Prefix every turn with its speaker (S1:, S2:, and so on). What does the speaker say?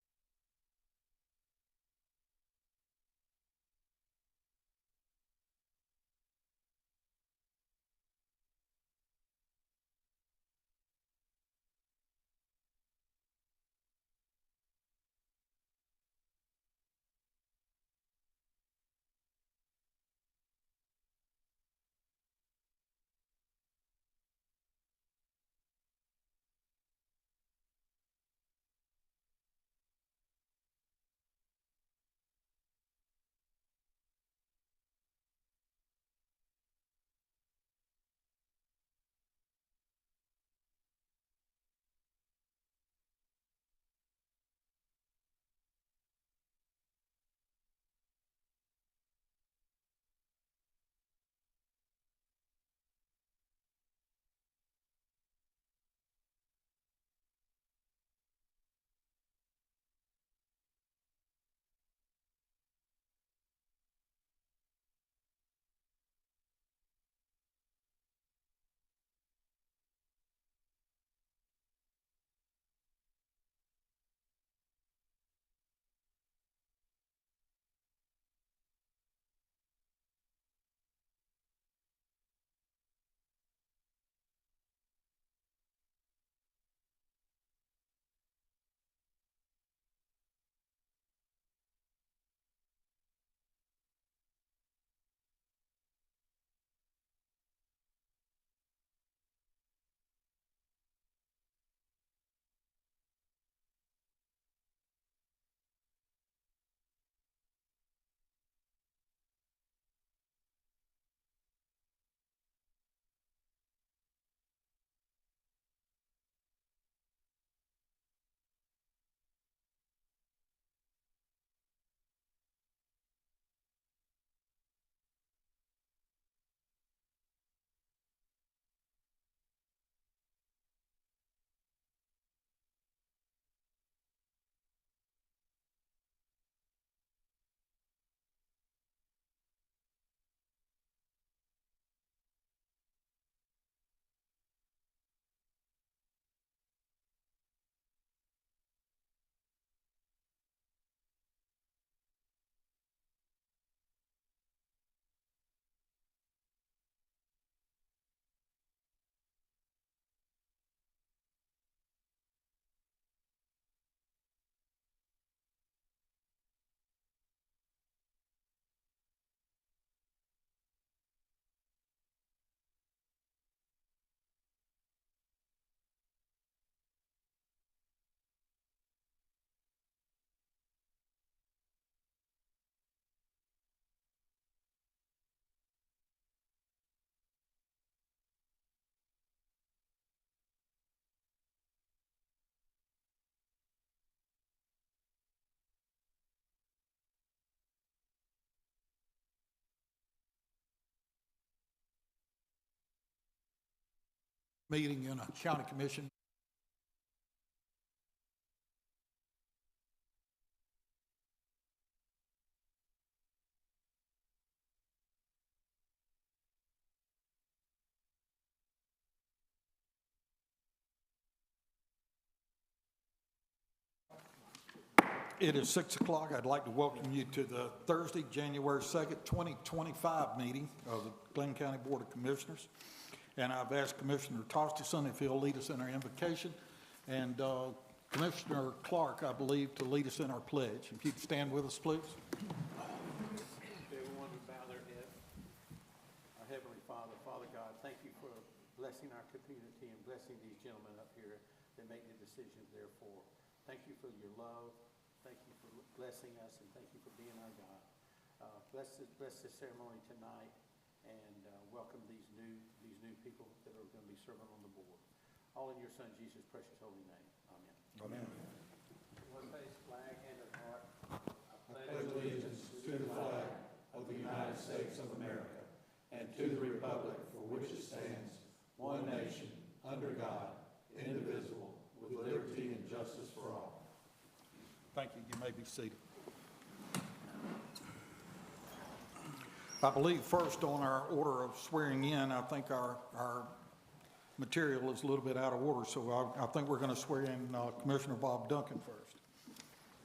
S1: meeting in a county commission. It is six o'clock. I'd like to welcome you to the Thursday, January second, twenty twenty-five meeting of the Glenn County Board of Commissioners. And I've asked Commissioner Tostison if he'll lead us in our invocation, and uh, Commissioner Clark, I believe, to lead us in our pledge. If you'd stand with us, please.
S2: Everyone would bow their head. Our Heavenly Father, Father God, thank you for blessing our community and blessing these gentlemen up here that make the decisions therefore. Thank you for your love, thank you for blessing us, and thank you for being our God. Uh, Bless this, bless this ceremony tonight and uh, welcome these new, these new people that are going to be serving on the board. All in your Son Jesus' precious holy name. Amen. One face flag and a heart.
S1: Thank you. You may be seated. I believe first on our order of swearing in, I think our, our material is a little bit out of order, so I, I think we're going to swear in uh, Commissioner Bob Duncan first.